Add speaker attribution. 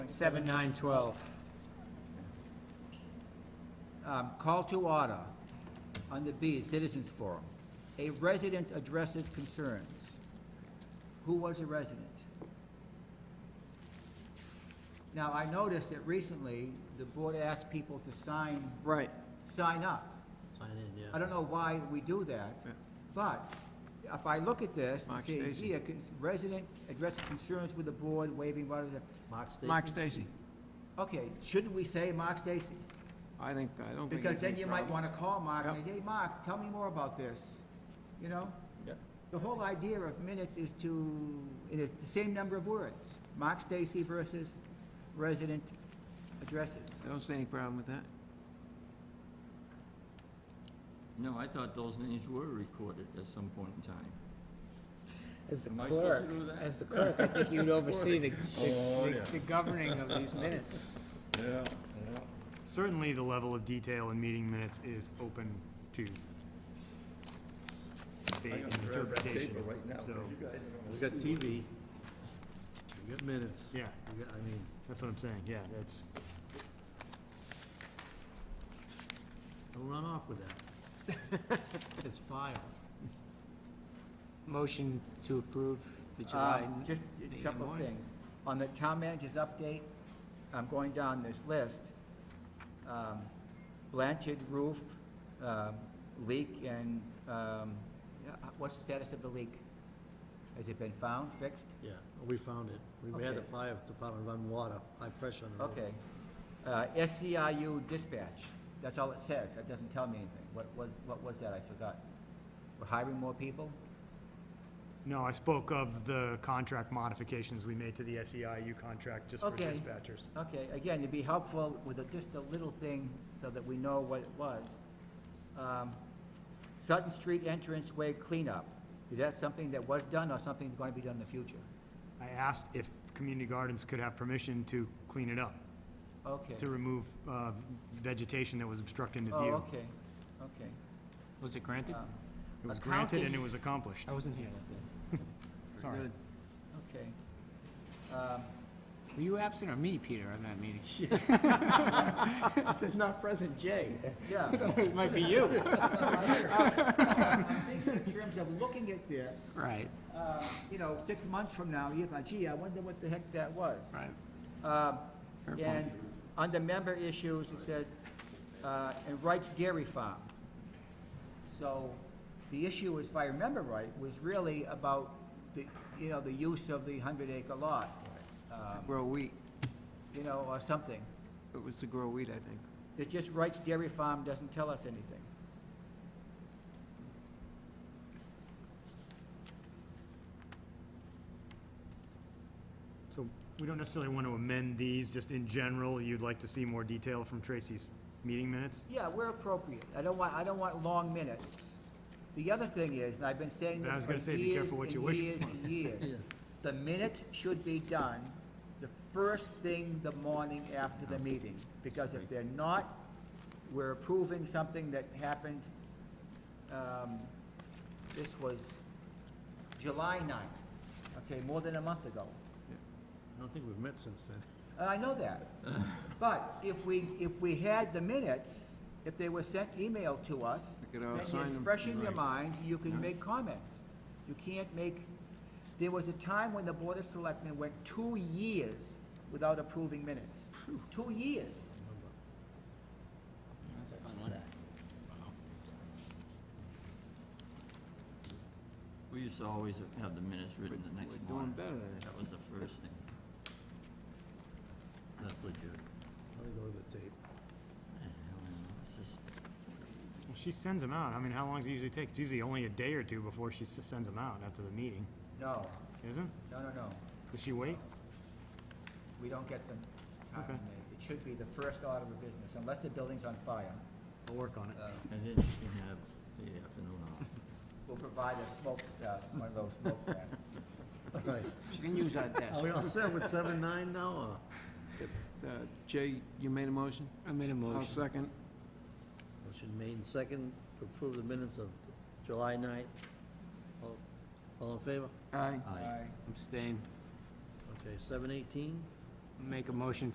Speaker 1: Seven, nine, twelve.
Speaker 2: Um, Call to order. Under B, Citizens Forum. A resident addresses concerns. Who was a resident? Now, I noticed that recently, the board asked people to sign,
Speaker 1: Right.
Speaker 2: sign up.
Speaker 3: Sign in,
Speaker 2: I
Speaker 3: yeah.
Speaker 2: don't know why we do that,
Speaker 1: Yeah.
Speaker 2: but if I look at this and
Speaker 1: Mark
Speaker 2: see,
Speaker 1: Stacy.
Speaker 2: here, cons- resident addresses concerns with the board, waiving, blah, blah, blah.
Speaker 3: Mark Stacy?
Speaker 1: Mark Stacy.
Speaker 2: Okay, shouldn't we say Mark Stacy?
Speaker 1: I think, I don't think.
Speaker 2: Because
Speaker 1: it's any
Speaker 2: then you might
Speaker 1: problem.
Speaker 2: wanna call Mark and
Speaker 1: Yep.
Speaker 2: say, hey, Mark, tell me more about this, you know?
Speaker 3: Yep.
Speaker 2: The whole idea of minutes is to, it is the same number of words, Mark Stacy versus resident addresses.
Speaker 1: I don't see any problem with that.
Speaker 4: No, I thought those names were recorded at some point in time.
Speaker 5: As the
Speaker 4: Am I supposed
Speaker 5: clerk,
Speaker 4: to do that? Oh,
Speaker 5: as the clerk, I think you'd oversee the, the the governing of these minutes.
Speaker 4: Yeah, yeah.
Speaker 6: Certainly, the level of detail in meeting minutes is open to
Speaker 4: I gotta
Speaker 6: debate and
Speaker 4: grab that
Speaker 6: interpretation.
Speaker 4: paper right now, 'cause
Speaker 6: So,
Speaker 4: you guys are
Speaker 3: We
Speaker 4: gonna-
Speaker 3: got TV, we got minutes,
Speaker 6: yeah,
Speaker 3: we got, I mean,
Speaker 6: that's what I'm saying, yeah, that's,
Speaker 3: don't run off with that. It's file.
Speaker 5: Motion to approve the July.
Speaker 2: Um, Just a
Speaker 5: meeting
Speaker 2: couple of
Speaker 5: warrant.
Speaker 2: things. On the town manager's update, I'm going down this list. Um, Blanchard roof, um, leak and, um, yeah, what's the status of the leak? Has it been found, fixed?
Speaker 3: Yeah, we found it. We had the
Speaker 2: Okay.
Speaker 3: fire department run water, high pressure on the roof.
Speaker 2: Okay. Uh, SEIU dispatch, that's all it says, that doesn't tell me anything. What was, what was that, I forgot. We're hiring more people?
Speaker 6: no, I spoke of the contract modifications we made to the SEIU contract just for
Speaker 2: Okay.
Speaker 6: dispatchers.
Speaker 2: Okay, again, it'd be helpful with a- just a little thing so that we know what it was. Um, Sutton Street entrance way cleanup, is that something that was done or something going to be done in the future?
Speaker 6: I asked if community gardens could have permission to clean it up,
Speaker 2: Okay.
Speaker 6: to remove uh, vegetation that was obstructing the
Speaker 2: Oh,
Speaker 6: view.
Speaker 2: okay, okay.
Speaker 5: Was it granted?
Speaker 2: Um,
Speaker 6: It was granted and it was accomplished,
Speaker 2: Oh.
Speaker 5: I wasn't here that day.
Speaker 6: sorry.
Speaker 5: Good.
Speaker 2: Okay. Um,
Speaker 5: Were you absent or me, Peter, on that meeting? It says not present, Jay.
Speaker 2: Yeah.
Speaker 5: It might be you.
Speaker 2: I think in terms of looking at this,
Speaker 5: Right,
Speaker 2: uh, you know, six months from now, you're like, gee, I wonder what the heck that was.
Speaker 5: right.
Speaker 2: Um,
Speaker 5: Fair point.
Speaker 2: And under member issues, it says, uh, and Wright's Dairy Farm. So the issue, if I remember right, was really about the, you know, the use of the hundred acre lot, um,
Speaker 1: Grow wheat.
Speaker 2: you know, or something.
Speaker 1: It was to grow wheat, I think.
Speaker 2: It's just Wright's Dairy Farm doesn't tell us anything.
Speaker 6: So we don't necessarily want to amend these, just in general, you'd like to see more detail from Tracy's meeting minutes?
Speaker 2: Yeah, we're appropriate. I don't want, I don't want long minutes. The other thing is, and I've been saying this
Speaker 6: I was
Speaker 2: for
Speaker 6: gonna
Speaker 2: years
Speaker 6: say,
Speaker 2: and
Speaker 6: be careful what you wish
Speaker 2: years
Speaker 6: for.
Speaker 2: and years, the minute should be done the first thing the morning after the meeting. Because if they're not, we're approving something that happened, um, this was July 9th, okay, more than a month ago.
Speaker 3: I don't think we've met since then.
Speaker 2: Uh, I know that. But if we, if we had the minutes, if they were sent email to us,
Speaker 1: We could all
Speaker 2: then
Speaker 1: sign
Speaker 2: it's
Speaker 1: them.
Speaker 2: fresh in your mind, you can make comments. You can't make, there was a time when the Board of Selectmen went two years without approving minutes. Two years.
Speaker 5: That's a fun one.
Speaker 4: We used to always have the minutes written the next
Speaker 1: We're doing
Speaker 4: morning.
Speaker 1: better than that.
Speaker 4: That was the first thing. That's legit.
Speaker 3: Let me go to the tape.
Speaker 4: I don't know, it's just-
Speaker 6: Well, She sends them out, I mean, how long does it usually take? It's usually only a day or two before she s- sends them out after the meeting,
Speaker 2: No,
Speaker 6: isn't?
Speaker 2: no, no, no.
Speaker 6: Does she wait?
Speaker 2: We don't get them. timely.
Speaker 6: Okay.
Speaker 2: It should be the first order of business, unless the building's on fire.
Speaker 6: I'll work on it.
Speaker 2: Uh,
Speaker 4: And then she can have the afternoon off.
Speaker 2: We'll provide a smoke, uh, one of those smoke vests.
Speaker 3: Right.
Speaker 5: She can use our desk.
Speaker 3: Are we all set with seven, nine now, or?
Speaker 1: Uh, Jay, you made a motion?
Speaker 5: I made a
Speaker 1: I'll
Speaker 5: motion.
Speaker 1: second.
Speaker 3: Motion made and second to approve the minutes of July 9th. All- All in favor?
Speaker 1: Aye.
Speaker 4: Aye.
Speaker 2: Aye.
Speaker 5: Abstain.
Speaker 3: Okay, seven eighteen,
Speaker 5: Make a motion